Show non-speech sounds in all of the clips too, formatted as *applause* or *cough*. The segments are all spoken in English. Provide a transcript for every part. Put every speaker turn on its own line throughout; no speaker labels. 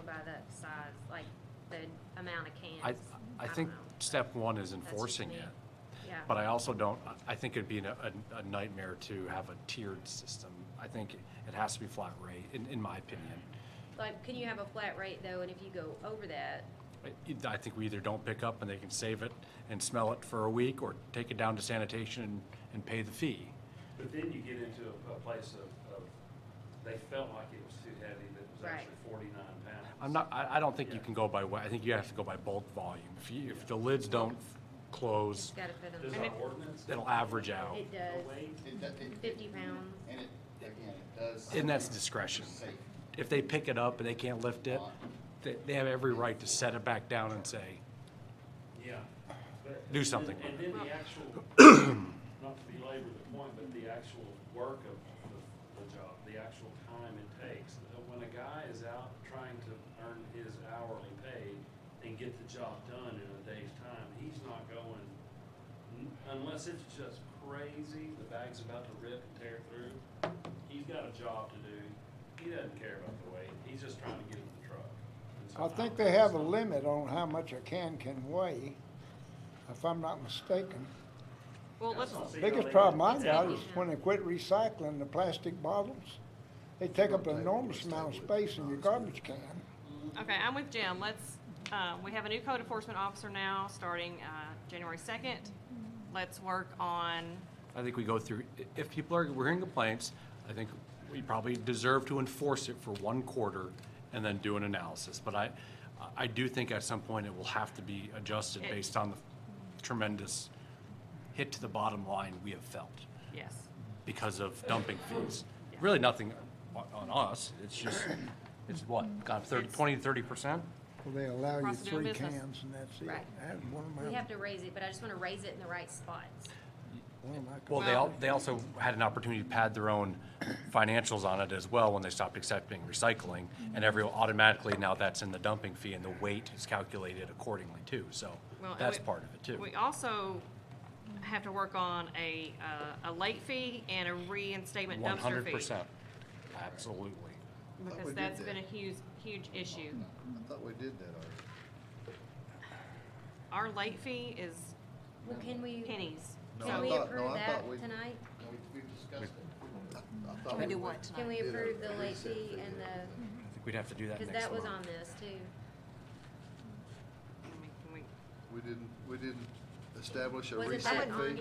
by the size, like the amount of cans.
I, I
don't
think
know.
step one is
just
enforcing
me.
it,
Yeah.
but I also don't, I- I think it'd be a, a- a nightmare to have a tiered system. I think it has to be flat rate, in, in my opinion.
Like, can you have a flat rate though, and if you go over that,
I- I think we either don't pick up and they can save it and smell it for a week, or take it down to sanitation and, and pay the fee.
But then you get into a- a place of, of, they felt like it was too heavy, but it was
Right.
actually forty-nine pounds.
I'm not, I, I don't think you
Yeah.
can go by, wa- I think you have to go by bulk volume. If you, if the lids don't close,
it's gotta fit in
Does
the,
our ordinance?
it'll average out,
it
go
does,
away?
It does- it-
fifty pounds.
And it, again, it does.
and that's discretion.
Safe.
If they pick it up and they can't lift it, they, they have every right to set it back down and say,
Yeah. but-
Do something
And
with
then the actual, *coughs* not to belabor the point, but the actual work of the, the job, the actual time it takes. Uh, When a guy is out trying to earn his hourly pay and get the job done in a day's time, he's not going, n- unless it's just crazy, the bag's about to rip and tear through, he's got a job to do. He doesn't care about the weight, he's just trying to get in the truck. And so
I think they have a limit on how much a can can weigh, if I'm not mistaken.
Well, let's,
That's not-
Biggest problem I got is when they quit recycling the plastic bottles. They take up an enormous amount of space in your garbage can.
okay, I'm with Jim. Let's, uh, we have a new code enforcement officer now, starting, uh, January second. Let's work on,
I think we go through, i- if people are, we're hearing complaints, I think we probably deserve to enforce it for one quarter and then do an analysis. But I, I do think at some point it will have to be adjusted
It-
based on the tremendous hit to the bottom line we have felt
yes,
because of dumping fees. Really nothing on, on us, it's just, it's what, gone thirty,
It's-
twenty, thirty percent?
Well, they allow you
Across the
three
business.
cans and that's it.
Right.
That's one of
We
my,
have to raise it, but I just wanna raise it in the right spots.
one of my.
Well, they al- they also had an opportunity to pad their own financials on it as well when they stopped accepting recycling. And every, automatically now that's in the dumping fee and the weight is calculated accordingly too, so
well. and
that's
we-
part of it too.
We also have to work on a, uh, a late fee and a reinstatement
One
dumpster
hundred
fee.
percent, absolutely.
Thought we
Because
did
that's been a
that.
huge, huge issue.
I thought we did that already.
Our late fee is
Well, can we,
pennies.
No,
can
I
we
thought- no,
approve
I
that
thought we-
tonight?
No, we, we discussed it. I- I thought
Can we do
went-
what
Can
tonight?
we
did a
approve the late
reset
fee
fee
and the,
I think we'd have to do that
cause
next
that was
month.
on this too.
I mean, can we-
We didn't, we didn't establish a
Wasn't
reset
that
fee.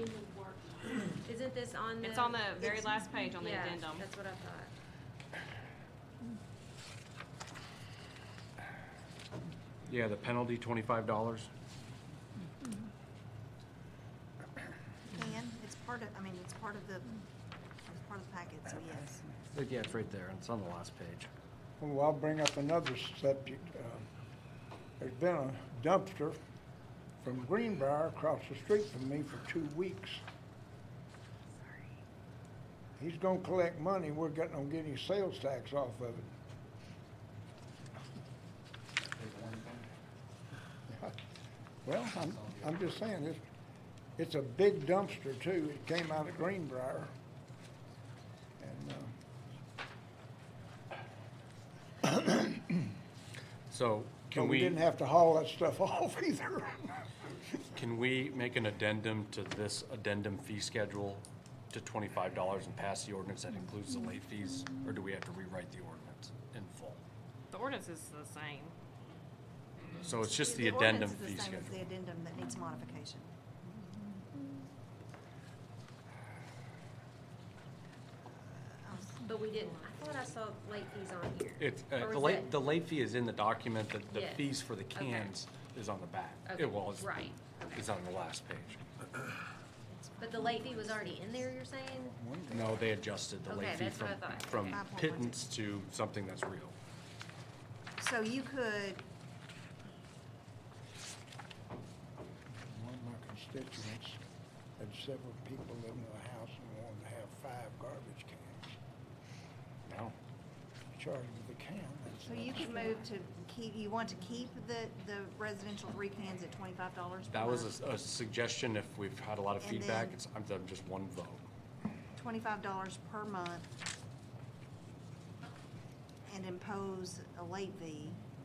on,
*clears throat*
isn't this on the?
It's on the very last page on the
Yeah,
addendum.
That's what I thought.
Yeah, the penalty, twenty-five dollars.
Can, it's part of, I mean, it's part of the, it's part of the packet, so yes.
Yeah, it's right there, and it's on the last page.
Well, I'll bring up another subject. Uh, There's been a dumpster from Greenbrier across the street from me for two weeks. He's gonna collect money, we're getting, on getting sales tax off of it. *laughs* Well, I'm, I'm just saying, it's, it's a big dumpster too, it came out of Greenbrier. And, uh,
So
But
can
we
we,
didn't have to haul that stuff *laughs* off either.
can we make an addendum to this addendum fee schedule to twenty-five dollars and pass the ordinance that includes the late fees? Or do we have to rewrite the ordinance in full?
The ordinance is the same.
So it's just the addendum
ordinance
fee
is the same
schedule.
as The addendum that needs modification.
But we didn't, I thought I saw late fees on here.
It's, uh,
Or
the
was
late,
that-
the late fee is in the document, the, the
Yes.
fees for the
Okay.
cans is on the back.
Okay,
It was,
right.
it's on the last page.
But the late fee was already in there, you're saying?
No, they adjusted the late
Okay,
fee
that's
from,
what I thought.
from
Okay.
Five point one
pittance to something that's real.
So you could,
One of my constituents had several people living in the house and wanted to have five garbage cans.
No,
Charged with a can, that's.
so you
another
could
story.
move to keep, you want to keep the, the residential three cans at twenty-five dollars per
that
month?
was a s- a, suggestion, if we've had a lot of
And
feedback,
then-
it's, I'm, I'm just one vote.
twenty-five dollars per month and impose a late fee.